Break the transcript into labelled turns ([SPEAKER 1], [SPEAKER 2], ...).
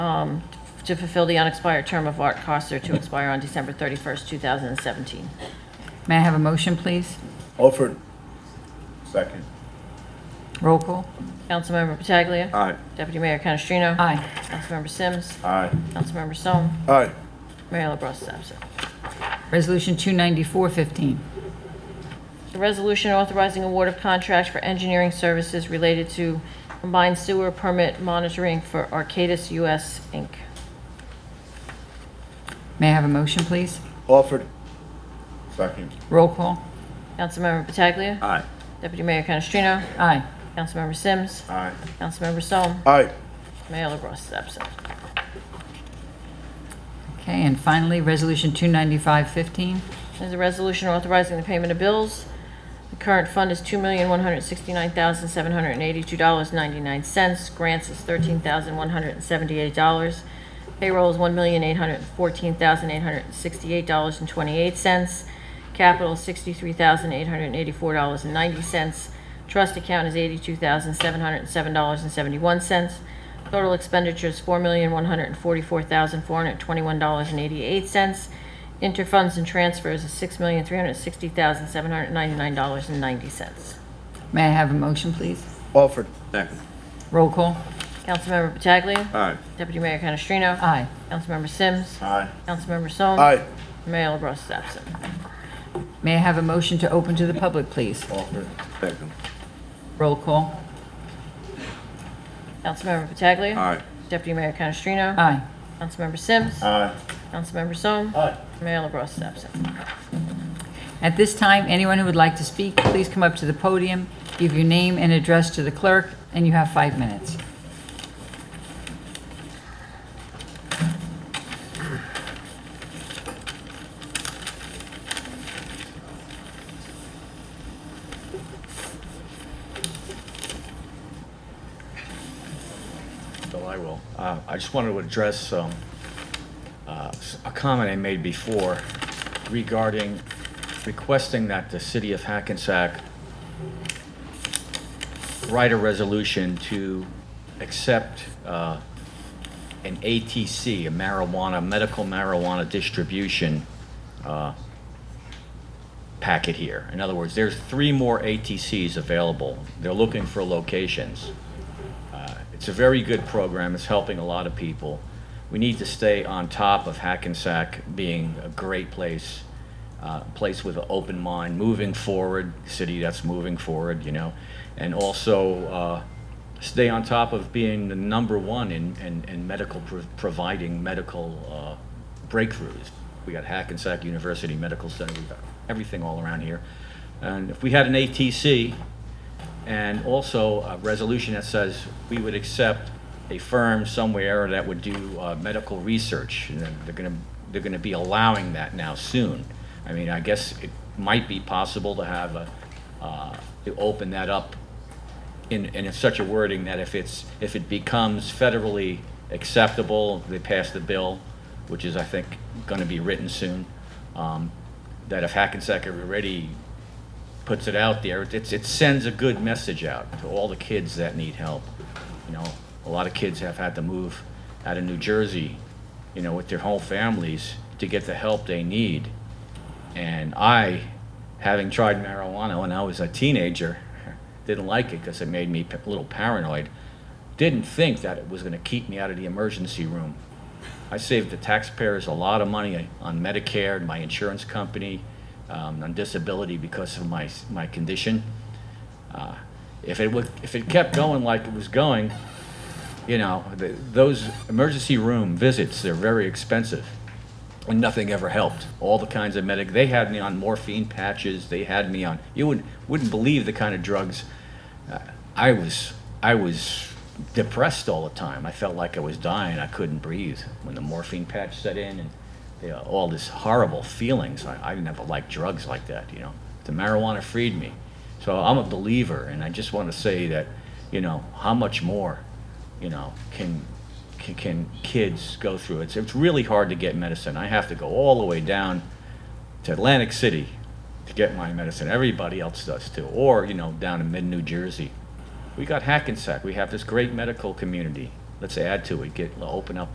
[SPEAKER 1] um, to fulfill the unexpired term of Art Coster to expire on December 31st, 2017.
[SPEAKER 2] May I have a motion, please?
[SPEAKER 3] Offered. Second.
[SPEAKER 2] Roll call.
[SPEAKER 1] Councilmember Pataglia.
[SPEAKER 3] Aye.
[SPEAKER 1] Deputy Mayor Canestrino.
[SPEAKER 2] Aye.
[SPEAKER 1] Councilmember Sims.
[SPEAKER 3] Aye.
[SPEAKER 1] Councilmember Sol.
[SPEAKER 3] Aye.
[SPEAKER 1] Mayor LaBrus is absent.
[SPEAKER 2] Resolution 294-15.
[SPEAKER 1] The resolution authorizing award of contract for engineering services related to combined sewer permit monitoring for Arcadis US Inc.
[SPEAKER 2] May I have a motion, please?
[SPEAKER 3] Offered. Second.
[SPEAKER 2] Roll call.
[SPEAKER 1] Councilmember Pataglia.
[SPEAKER 3] Aye.
[SPEAKER 1] Deputy Mayor Canestrino.
[SPEAKER 2] Aye.
[SPEAKER 1] Councilmember Sims.
[SPEAKER 3] Aye.
[SPEAKER 1] Councilmember Sol.
[SPEAKER 3] Aye.
[SPEAKER 1] Mayor LaBrus is absent.
[SPEAKER 2] Okay, and finally, Resolution 295-15.
[SPEAKER 1] There's a resolution authorizing the payment of bills. The current fund is $2,169,782.99. Grants is $13,178. Payroll is $1,814,868.28. Capital is $63,884.90. Trust account is $82,707.71. Total expenditures, $4,144,421.88. Interfunds and transfers is $6,360,799.90.
[SPEAKER 2] May I have a motion, please?
[SPEAKER 3] Offered. Second.
[SPEAKER 2] Roll call.
[SPEAKER 1] Councilmember Pataglia.
[SPEAKER 3] Aye.
[SPEAKER 1] Deputy Mayor Canestrino.
[SPEAKER 2] Aye.
[SPEAKER 1] Councilmember Sims.
[SPEAKER 3] Aye.
[SPEAKER 1] Councilmember Sol.
[SPEAKER 3] Aye.
[SPEAKER 1] Mayor LaBrus is absent.
[SPEAKER 2] May I have a motion to open to the public, please?
[SPEAKER 3] Offered. Second.
[SPEAKER 2] Roll call.
[SPEAKER 1] Councilmember Pataglia.
[SPEAKER 3] Aye.
[SPEAKER 1] Deputy Mayor Canestrino.
[SPEAKER 2] Aye.
[SPEAKER 1] Councilmember Sims.
[SPEAKER 3] Aye.
[SPEAKER 1] Councilmember Sol.
[SPEAKER 3] Aye.
[SPEAKER 1] Mayor LaBrus is absent.
[SPEAKER 2] At this time, anyone who would like to speak, please come up to the podium, give your name and address to the clerk, and you have five minutes.
[SPEAKER 4] Bill, I will. Uh, I just wanted to address um, uh, s- a comment I made before regarding requesting that the city of Hackensack write a resolution to accept uh, an ATC, a marijuana, medical marijuana distribution uh, packet here. In other words, there's three more ATCs available. They're looking for locations. Uh, It's a very good program, it's helping a lot of people. We need to stay on top of Hackensack being a great place, uh, place with an open mind, moving forward, city that's moving forward, you know? And also, uh, stay on top of being the number one in, in, in medical, pro- providing medical uh, breakthroughs. We got Hackensack University Medical Center, we got everything all around here. And if we had an ATC, and also a resolution that says we would accept a firm somewhere that would do uh, medical research. And then They're going to, they're going to be allowing that now soon. I mean, I guess it might be possible to have a, uh, to open that up in, in such a wording that if it's, if it becomes federally acceptable, they pass the bill, which is, I think, going to be written soon, um, that if Hackensack already puts it out there, it's, it sends a good message out to all the kids that need help. You know, a lot of kids have had to move out of New Jersey, you know, with their whole families to get the help they need. And I, having tried marijuana when I was a teenager, didn't like it because it made me p- a little paranoid. Didn't think that it was going to keep me out of the emergency room. I saved the taxpayers a lot of money on Medicare and my insurance company, um, on disability because of my, my condition. Uh, If it would, if it kept going like it was going, you know, th those emergency room visits, they're very expensive. And nothing ever helped. All the kinds of medic, they had me on morphine patches, they had me on, you wouldn't, wouldn't believe the kind of drugs. uh, I was, I was depressed all the time. I felt like I was dying. I couldn't breathe when the morphine patch set in and you know, all this horrible feelings. I, I never liked drugs like that, you know. The marijuana freed me. So I'm a believer, and I just want to say that, you know, how much more, you know, can can, can kids go through? It's it's really hard to get medicine. I have to go all the way down to Atlantic City to get my medicine. Everybody else does too, or you know, down in mid New Jersey. We got Hackensack. We have this great medical community. Let's add to it. Get open up